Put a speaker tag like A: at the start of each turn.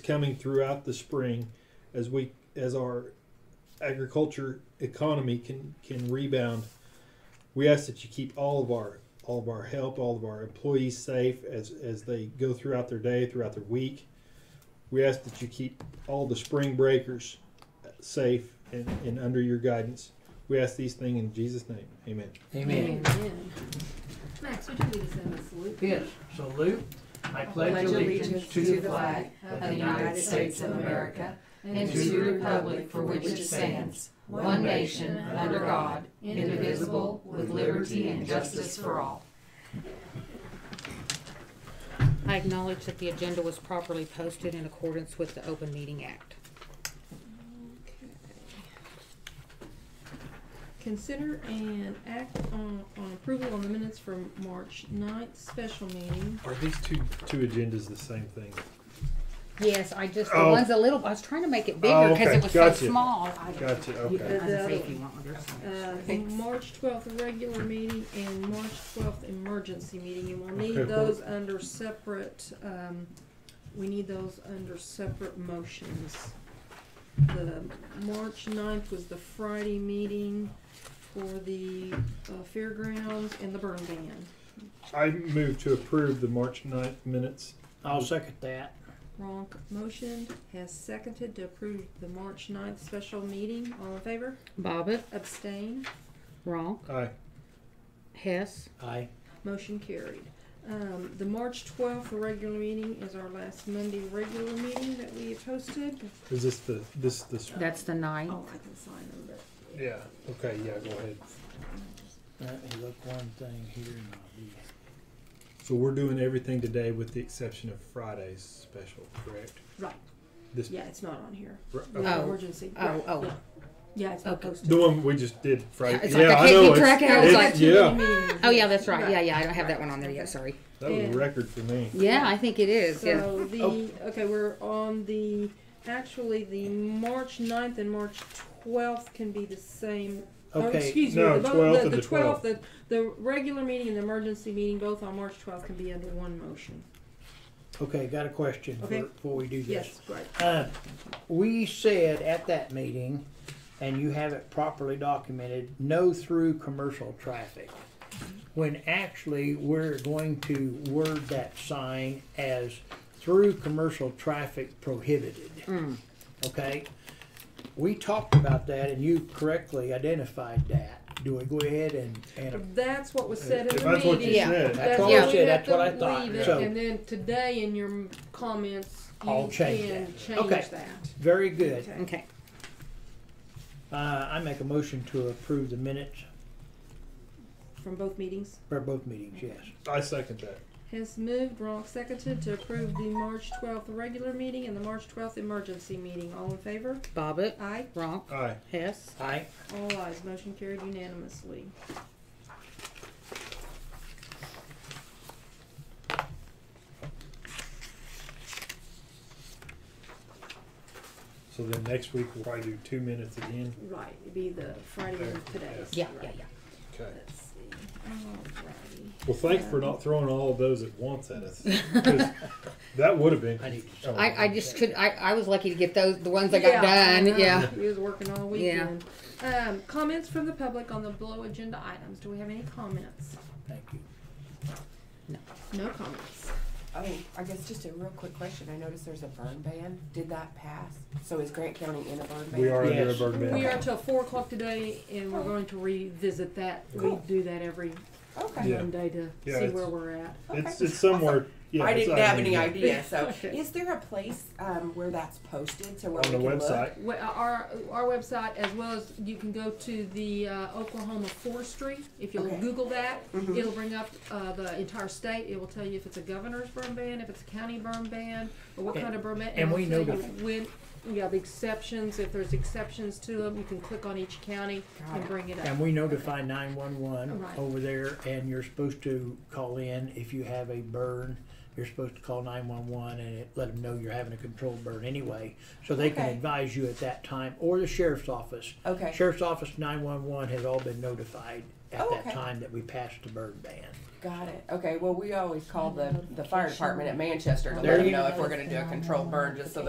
A: coming throughout the spring as we as our agriculture economy can can rebound. We ask that you keep all of our all of our help, all of our employees safe as as they go throughout their day, throughout their week. We ask that you keep all the spring breakers safe and, and under your guidance. We ask these things in Jesus' name. Amen.
B: Amen.
C: Amen. Max, would you lead us in this salute?
B: Yes, so Luke, I pledge allegiance to the flag
C: of the United States of America
D: and to the republic for which it stands, one nation, under God, indivisible, with liberty and justice for all.
E: I acknowledge that the agenda was properly posted in accordance with the Open Meeting Act.
D: Consider and act on, on approval on the minutes from March 9th special meeting.
A: Are these two two agendas the same thing?
E: Yes, I just, the
A: Oh.
E: one's a little, I was trying to make it
A: Oh,
E: bigger because
A: okay.
E: it was so
A: Gotcha.
E: small. I-
A: Gotcha. Okay.
E: I can say if you want, there's some.
D: Uh,
C: Thanks.
D: March twelfth regular meeting and March twelfth emergency meeting, and we'll need
A: Okay.
D: those under separate, um, we need those under separate motions. The March 9th was the Friday meeting for the, uh, fairgrounds and the burn ban.
A: I move to approve the March 9th minutes.
B: I'll second that.
D: Ronk motion has seconded to approve the March 9th special meeting, all in favor?
E: Bobbit,
D: Abstain?
E: Ronk,
A: Aye.
E: Hess,
B: Aye.
D: Motion carried. Um, the March twelfth regular meeting is our last Monday regular meeting that we have posted.
A: Is this the this this?
E: that's the ninth.
D: Oh, I can sign them, but
A: Yeah. Okay. Yeah. Go ahead.
B: Let me uh, look one thing here and I'll be.
A: So we're doing everything today with the exception of Friday's special, correct?
D: right,
A: This.
D: yeah, it's not on here.
A: r-
D: The
A: okay.
E: Oh.
D: Emergency.
E: Oh,
D: right,
E: oh,
D: yeah. Yeah, it's not
E: Okay.
D: posted.
A: The one we just did Friday.
E: It's
A: yeah,
E: like I
A: I
E: can't
A: know.
E: keep track of it.
A: it's-
E: I was
A: it's-
E: like-
A: yeah.
E: oh yeah, that's right. Yeah, yeah, I don't have that one on there yet, sorry.
A: That was
D: Yeah.
A: a record for me.
E: Yeah, I think it is, yeah. Oh.
D: So the, okay, we're on the, actually, the March 9th and March twelfth can be the same. or
B: Okay,
D: Excuse me,
A: no,
D: the bo-
A: 12th
D: the,
A: and
D: the
A: the
D: twelfth, the, the regular meeting and the emergency meeting, both on March twelfth can be under one motion.
B: Okay, got a question
D: Okay.
B: before before we do this.
D: Yes, right.
B: Uh, we said at that meeting, and you have it properly documented, no through commercial traffic. When actually, we're going to word that sign as through commercial traffic prohibited.
E: Mm.
B: Okay? We talked about that and you correctly identified that. Do we go ahead and, and
D: That's what was said in
A: If
D: the
A: that's what you
D: meeting.
E: Yeah.
A: said.
B: That's
E: all I
B: said, that's what I thought.
D: Leave it,
B: So-
D: And then today in your comments, you
B: I'll change
D: can
B: that.
D: change
B: Okay.
D: that.
B: Very good.
E: Okay,
B: Uh, I make a motion to approve the minutes
D: From both meetings.
B: for both meetings, yes.
A: I second that.
D: Has moved, Ronk seconded to approve the March twelfth regular meeting and the March twelfth emergency meeting. All in favor?
E: Bobbit,
D: Aye.
E: Ronk,
A: Aye.
E: Hess,
B: Aye.
D: All ayes. Motion carried unanimously.
A: So then next week we'll probably do two minutes again.
D: Right, it'd be the Friday and today.
E: yeah, yeah, yeah.
A: Okay.
D: Let's see. Alrighty.
A: Well, thanks for not throwing all of those at once at us. 'cause that would have been.
B: I need
A: oh,
E: I, I just could, I, I was lucky to get those, the ones that got
D: I know.
E: done, yeah.
D: Uh-huh. He was working all
E: Yeah.
D: weekend. Um, comments from the public on the below agenda items. Do we have any comments?
B: Thank you.
D: No comments.
C: Oh, I guess just a real quick question. I noticed there's a burn ban. Did that pass? So is Grant County in a burn ban?
A: We are under a
B: Yes.
A: burden ban.
D: We are till four o'clock today and we're going to revisit that. We
C: Cool.
D: do that every
C: Okay.
A: Yeah.
D: Monday to
A: Yeah,
D: see
A: it's-
D: where we're at.
A: It's
C: Okay.
A: it's somewhere. Yeah,
C: I
A: it's
C: didn't
A: out
C: have
A: there.
C: any idea, so.
D: Okay.
C: Is there a place, um, where that's posted to where
A: on
C: we
A: the
C: can look?
A: website.
D: We- Our, our website, as well as you can go to the uh, Oklahoma forestry. If you'll
C: Okay.
D: Google that,
B: Mm-hmm.
C: Mhm.
D: it'll bring up uh, the entire state. It will tell you if it's a governor's burn ban, if it's a county burn ban, or what
B: And-
D: kind of burn ban.
B: and
D: it'll
B: we know
D: tell you
B: that.
D: When, yeah, the exceptions, if there's exceptions to them, you can click on each county and bring it up.
B: And we notify nine one one
D: Right.
B: over there and you're supposed to call in if you have a burn. You're supposed to call nine one one and it, let them know you're having a controlled burn anyway. So they can
C: Okay.
B: advise you at that time or the sheriff's office.
C: Okay.
B: Sheriff's office, nine one one has all been notified at
C: Oh,
B: that
C: okay.
B: time that we passed the burn ban.
C: Got it. Okay, well, we always call the, the fire department at Manchester to
B: There
C: let them
B: you
C: know if we're gonna do a controlled burn, just so that